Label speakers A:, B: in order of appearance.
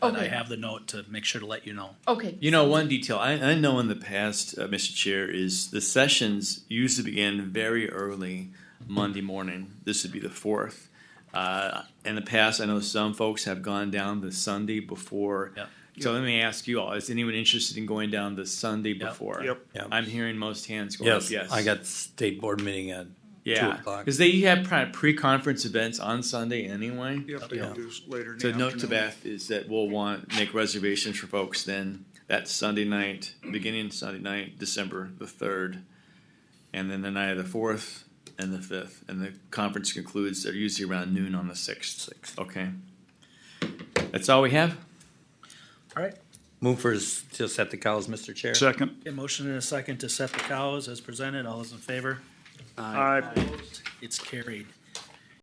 A: but I
B: Okay.
A: have the note to make sure to let you know.
B: Okay.
C: You know, one detail I, I know in the past, uh, Mr. Chair, is the sessions used to begin very early Monday morning. This would be the fourth. Uh, in the past, I know some folks have gone down the Sunday before.
A: Yep.
C: So let me ask you all: Is anyone interested in going down the Sunday before?
D: Yep. Yep.
C: I'm hearing most hands going. up,
E: Yes,
C: yes.
E: I got state board meeting at
C: Yeah,
E: o'clock.
C: because they have pri- pre-conference events on Sunday anyway.
D: Yep, they can do s- later in the
C: So note to
D: afternoon.
C: Beth is that we'll want, make reservations for folks then, that Sunday night, beginning Sunday night, December the third. And then the night of the fourth and the fifth, and the conference concludes, they're usually around noon on the sixth. Sixth. Okay. That's all we have?
A: All right.
E: Move for s- to set the cows, Mr. Chair.
D: Second.
A: Okay, motion and a second to set the cows as presented. All those in favor?
D: Aye.
A: It's carried.